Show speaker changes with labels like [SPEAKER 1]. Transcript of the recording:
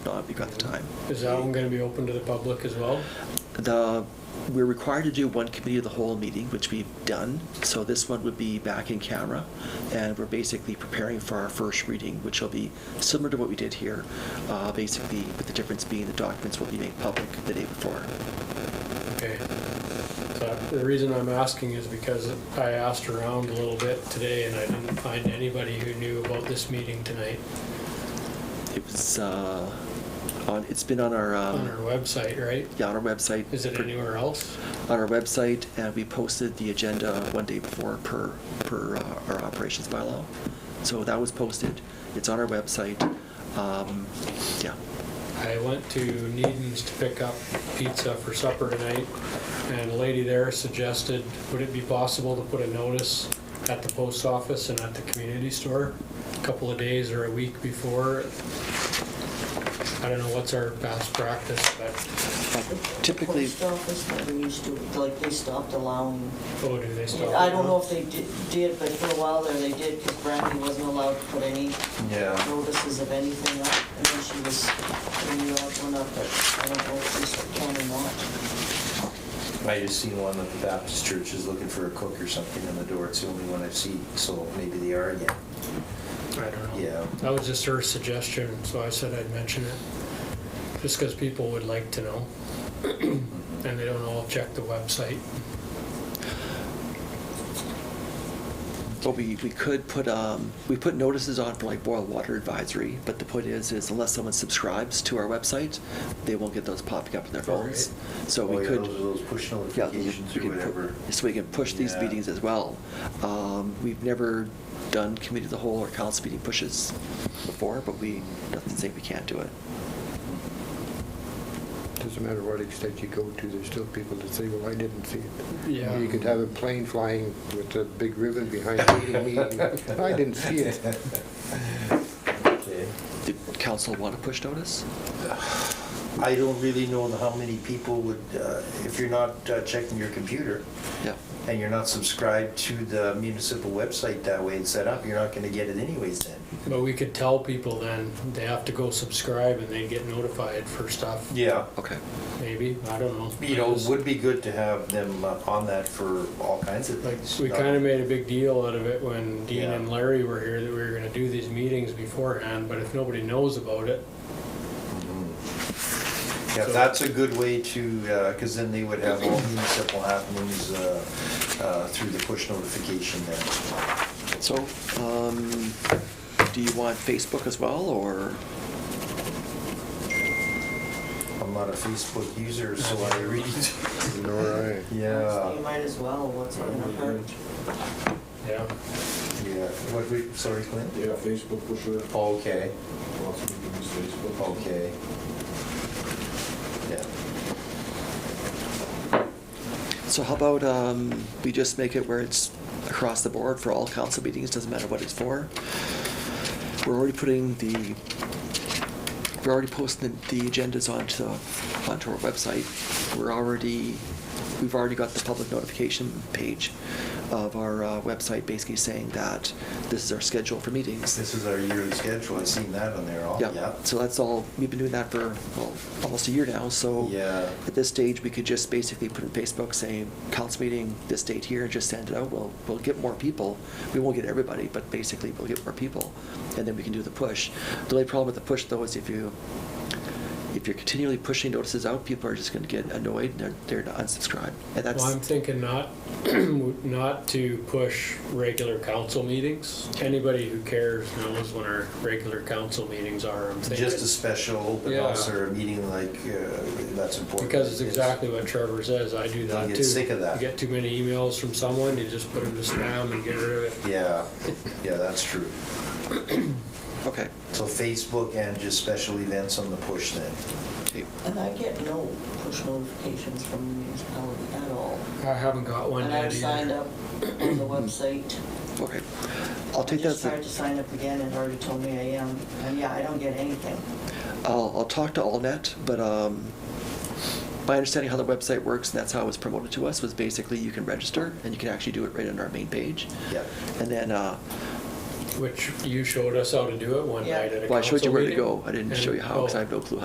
[SPEAKER 1] got the time.
[SPEAKER 2] Is that one going to be open to the public as well?
[SPEAKER 1] The, we're required to do one committee of the whole meeting, which we've done. So this one would be back in camera, and we're basically preparing for our first reading, which will be similar to what we did here, uh, basically, with the difference being the documents will be made public the day before.
[SPEAKER 2] Okay. So the reason I'm asking is because I asked around a little bit today and I didn't find anybody who knew about this meeting tonight
[SPEAKER 1] It was, uh, on, it's been on our,
[SPEAKER 2] on our
[SPEAKER 1] um,
[SPEAKER 2] website, right?
[SPEAKER 1] yeah, on our website.
[SPEAKER 2] Is it
[SPEAKER 1] for-
[SPEAKER 2] anywhere else?
[SPEAKER 1] on our website, and we posted the agenda one day before per, per uh, our operations bylaw. So that was posted, it's on our website, um, yeah.
[SPEAKER 2] I went to Needham's to pick up pizza for supper tonight, and a lady there suggested, would it be possible to put a notice at the post office and at the community store a couple of days or a week before? I don't know what's our past practice, but,
[SPEAKER 1] Typically,
[SPEAKER 3] Post office never used to, like, they stopped allowing,
[SPEAKER 2] oh, do they stop?
[SPEAKER 3] I don't know if they di- did, but for a while there they did, because Brandy wasn't allowed to put any
[SPEAKER 4] Yeah,
[SPEAKER 3] notices of anything up, and then she was, putting the odd one up, but I don't know if they still can or not.
[SPEAKER 4] I just seen one that the Baptist church is looking for a cook or something on the door. It's the only one I've seen, so maybe they are again.
[SPEAKER 2] I don't know.
[SPEAKER 4] Yeah.
[SPEAKER 2] That was just her suggestion, so I said I'd mention it, just because people would like to know, Mm-hmm. and they don't all check the website.
[SPEAKER 1] well, we, we could put, um, we put notices on for like boil water advisory, but the point is, is unless someone subscribes to our website, they won't get those popping up in their phones. So
[SPEAKER 4] Oh,
[SPEAKER 1] we
[SPEAKER 4] yeah,
[SPEAKER 1] could.
[SPEAKER 4] Those, those push
[SPEAKER 1] Yeah, we can-
[SPEAKER 4] notifications
[SPEAKER 1] we
[SPEAKER 4] or
[SPEAKER 1] can pu-
[SPEAKER 4] whatever.
[SPEAKER 1] So we can push these
[SPEAKER 4] Yeah.
[SPEAKER 1] meetings as well. Um, We've never done committee of the whole or council meeting pushes before, but we, nothing saying we can't do it.
[SPEAKER 5] Doesn't matter what extent you go to, there's still people that say, well, I didn't see it.
[SPEAKER 2] Yeah.
[SPEAKER 5] You could have a plane flying with a big ribbon behind it, meaning, I didn't see it.
[SPEAKER 4] Okay.
[SPEAKER 1] The council want a push notice?
[SPEAKER 4] I don't really know how many people would, uh, if you're not uh, checking your computer
[SPEAKER 1] Yeah.
[SPEAKER 4] and you're not subscribed to the municipal website that way and set up, you're not gonna get it anyways then.
[SPEAKER 2] But we could tell people then, they have to go subscribe and they get notified for stuff,
[SPEAKER 4] Yeah.
[SPEAKER 1] Okay.
[SPEAKER 2] maybe, I don't know.
[SPEAKER 4] You know, it would be good to have them uh, on that for all kinds of
[SPEAKER 2] Like,
[SPEAKER 4] things.
[SPEAKER 2] we kinda made a big deal out of it when Dean
[SPEAKER 4] Yeah.
[SPEAKER 2] and Larry were here, that we were gonna do these meetings beforehand, but if nobody knows about it,
[SPEAKER 4] Yeah,
[SPEAKER 2] So-
[SPEAKER 4] that's a good way to, because then they would have all municipal happenings uh, uh, through the push notification then.
[SPEAKER 1] So, um, do you want Facebook as well, or?
[SPEAKER 4] I'm not a Facebook user, so I read.
[SPEAKER 5] Nor I.
[SPEAKER 3] So You
[SPEAKER 4] Yeah,
[SPEAKER 3] might as well, what's it gonna hurt?
[SPEAKER 2] yeah,
[SPEAKER 4] yeah. What, we- sorry, Clint?
[SPEAKER 6] Yeah, Facebook for sure.
[SPEAKER 4] Okay,
[SPEAKER 6] Lots of people use Facebook.
[SPEAKER 4] okay. Yeah.
[SPEAKER 1] So how about um, we just make it where it's across the board for all council meetings, doesn't matter what it's for? We're already putting the, we're already posting the the agendas onto, onto our website. We're already, we've already got the public notification page of our uh, website basically saying that this is our schedule for meetings.
[SPEAKER 4] This is our yearly schedule, I've seen that on there all,
[SPEAKER 1] Yeah,
[SPEAKER 4] yeah.
[SPEAKER 1] so that's all, we've been doing that for, well, almost a year now, so.
[SPEAKER 4] Yeah.
[SPEAKER 1] At this stage, we could just basically put in Facebook saying, council meeting this date here, and just send it out. We'll, we'll get more people. We won't get everybody, but basically we'll get more people, and then we can do the push. The only problem with the push though is if you, if you're continually pushing notices out, people are just gonna get annoyed, and they're, they're to unsubscribe. And
[SPEAKER 2] well, I'm
[SPEAKER 1] that's,
[SPEAKER 2] thinking not, not to push regular council meetings. Anybody who cares knows when our regular council meetings are, I'm thinking.
[SPEAKER 4] Just a special open
[SPEAKER 2] Yeah.
[SPEAKER 4] house or a meeting like, uh, that's important.
[SPEAKER 2] Because it's exactly what Trevor says, I do that too.
[SPEAKER 4] You get sick of that.
[SPEAKER 2] You get too many emails from someone, you just put them to spam and get rid of it.
[SPEAKER 4] Yeah, yeah, that's true.
[SPEAKER 1] okay.
[SPEAKER 4] So Facebook and just special events on the push then.
[SPEAKER 1] Okay.
[SPEAKER 3] And I get no push notifications from the municipality at all.
[SPEAKER 2] I haven't got one
[SPEAKER 3] And
[SPEAKER 2] yet
[SPEAKER 3] I've
[SPEAKER 2] either.
[SPEAKER 3] signed up on the website.
[SPEAKER 1] Okay. I'll take
[SPEAKER 3] I
[SPEAKER 1] that. as
[SPEAKER 3] just
[SPEAKER 1] a-
[SPEAKER 3] tried to sign up again and already told me I am, and yeah, I don't get anything.
[SPEAKER 1] I'll, I'll talk to AllNet, but um, my understanding how the website works, and that's how it was promoted to us, was basically you can register and you can actually do it right on our main page.
[SPEAKER 4] Yeah.
[SPEAKER 1] And then, uh,
[SPEAKER 2] Which you showed us how to do it one
[SPEAKER 3] Yeah.
[SPEAKER 2] night at a council meeting.
[SPEAKER 1] well, I showed you where to go. I didn't show you how because I
[SPEAKER 2] And- oh,
[SPEAKER 1] have no clue